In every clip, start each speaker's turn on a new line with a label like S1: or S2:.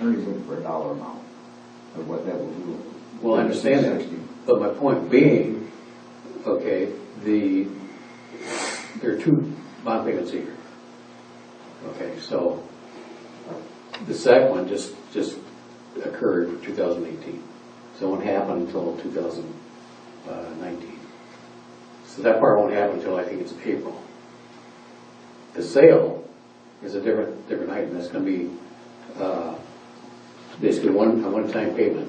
S1: Ernie's looking for a dollar amount of what that will do.
S2: Well, I understand that, but my point being, okay, the, there are two bond payments here. Okay, so the second one just, just occurred in 2018. So it won't happen until 2019. So that part won't happen until I think it's April. The sale is a different, different item. That's going to be uh, basically one, a one-time payment.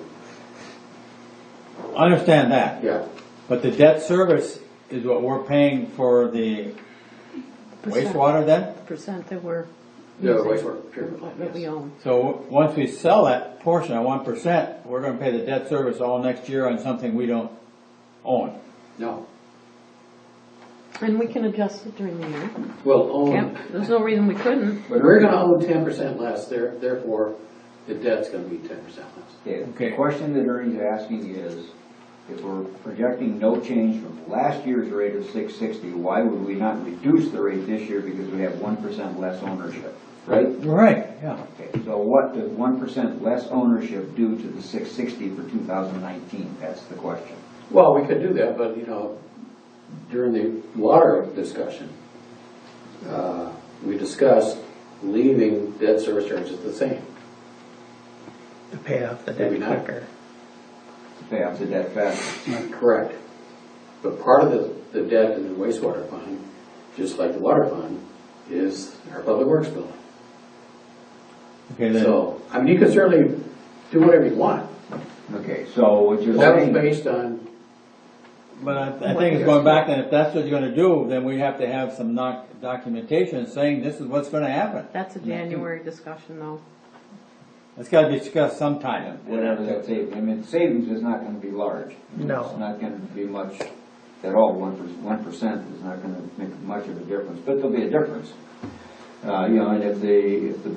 S3: I understand that,
S2: Yeah.
S3: but the debt service is what we're paying for the wastewater then?
S4: Percent that we're
S2: Yeah,
S4: using,
S2: wastewater treatment plant,
S4: that we
S2: yes.
S4: own.
S3: So w- once we sell that portion at one percent, we're gonna pay the debt service all next year on something we don't own.
S2: No.
S4: And we can adjust it during the year.
S2: Well,
S4: Can't,
S2: own,
S4: there's no reason we couldn't.
S2: but we're gonna own ten percent less, there, therefore, the debt's gonna be ten percent less.
S1: Yeah,
S3: Okay.
S1: the question that Ernie's asking is, if we're projecting no change from last year's rate of six sixty, why would we not reduce the rate this year because we have one percent less ownership, right?
S3: Right, yeah.
S1: Okay, so what does one percent less ownership do to the six sixty for two thousand nineteen? That's the question.
S2: Well, we could do that, but, you know, during the water discussion, uh, we discussed leaving debt service charges the same.
S5: to pay off the
S2: Maybe
S5: debt
S2: not.
S5: quicker.
S1: Pay off the debt faster.
S2: Correct. But part of the, the debt in the wastewater fund, just like the water fund, is our public works building.
S3: Okay, then,
S2: So, I mean, you can certainly do whatever you want.
S1: Okay, so what you're
S2: That was
S1: saying,
S2: based on
S3: but I, I think it's going back, then if that's what you're gonna do, then we have to have some doc- documentation saying this is what's gonna happen.
S4: That's a January discussion though.
S3: It's gotta be discussed sometime.
S1: whatever that savings, I mean, savings is not gonna be large.
S5: No.
S1: It's not gonna be much at all, one percent, one percent is not gonna make much of a difference, but there'll be a difference. Uh, you know, and if the, if the,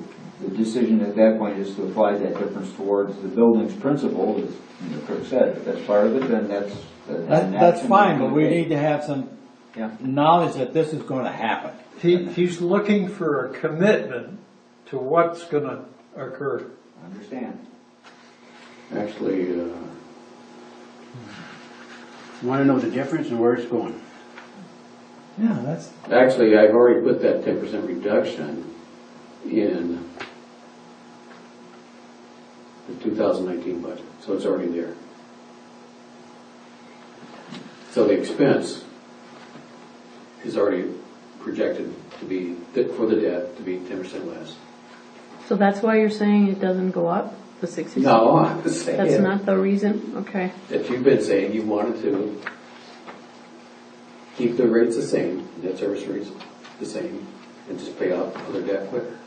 S1: the decision at that point is to apply that difference towards the building's principal, as Kirk said, if that's part of it, then that's. an
S3: That, that's
S1: action
S3: fine, but we
S1: take.
S3: need to have some
S1: Yeah.
S3: knowledge that this is gonna happen.
S6: He, he's looking for a commitment to what's gonna occur.
S1: Understand.
S2: actually, uh,
S7: Want to know the difference and where it's going.
S3: Yeah, that's.
S2: Actually, I've already put that ten percent reduction in the two thousand nineteen budget, so it's already there. So the expense is already projected to be, for the debt, to be ten percent less.
S4: So that's why you're saying it doesn't go up, the sixty?
S2: No, I'm
S4: That's
S2: saying
S4: not the reason? Okay.
S2: that you've been saying you wanted to keep the rates the same, debt service rates the same, and just pay off other debt quicker.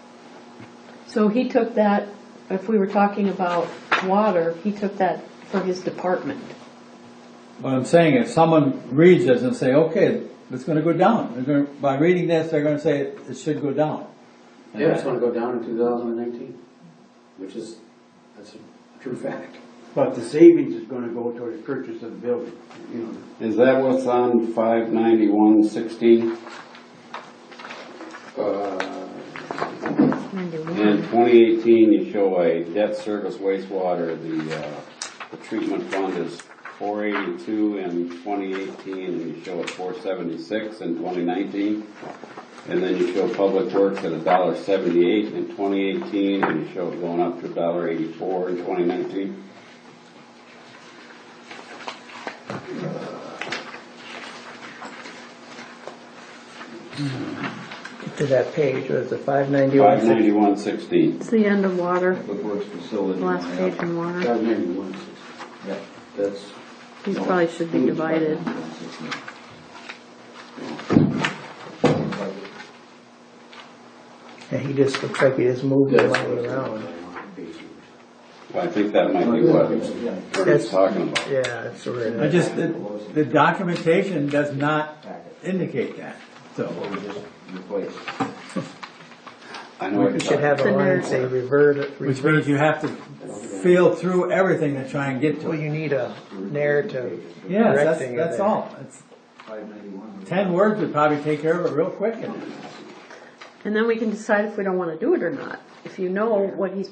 S4: So he took that, if we were talking about water, he took that for his department.
S3: What I'm saying, if someone reads this and say, okay, it's gonna go down, they're gonna, by reading this, they're gonna say it it should go down.
S2: Yeah, it's gonna go down in two thousand and nineteen, which is, that's a true fact.
S7: But the savings is gonna go toward the purchase of the building, you know.
S8: Is that what's on five ninety-one sixteen
S2: Uh,
S8: and
S4: Ninety-one.
S8: twenty eighteen? You show a debt service wastewater, the, uh, the treatment fund is four eighty-two in twenty eighteen, and you show it four seventy-six in twenty nineteen. And then you show public works at a dollar seventy-eight in twenty eighteen, and you show it going up to a dollar eighty-four in twenty nineteen.
S5: To that page was the five ninety-one.
S8: Five ninety-one sixteen.
S4: It's the end of water,
S1: Public Works Facility.
S4: the last
S1: line
S4: page
S1: up.
S4: in water.
S2: five ninety-one,
S1: Yep.
S2: that's,
S4: These probably should be divided.
S5: And he just looks like he just moved the
S2: that's.
S5: money around.
S8: Well, I think that might be what
S1: Yeah.
S8: Ernie's talking about.
S5: Yeah, that's where
S3: I
S5: it is.
S3: just, the the documentation does not indicate that,
S1: What
S3: so.
S1: we just replaced.
S8: I know what you're
S5: You should
S8: talking
S5: have
S4: It's
S5: a
S4: in there.
S5: line say revert,
S3: Which means you have to feel through everything to try and get to
S5: well,
S3: it.
S5: you need a narrative.
S3: Yes, that's,
S5: correcting it
S3: that's
S5: there.
S3: all. It's,
S1: 591.
S3: ten words would probably take care of it real quick.
S4: And then we can decide if we don't wanna do it or not. If you know what he's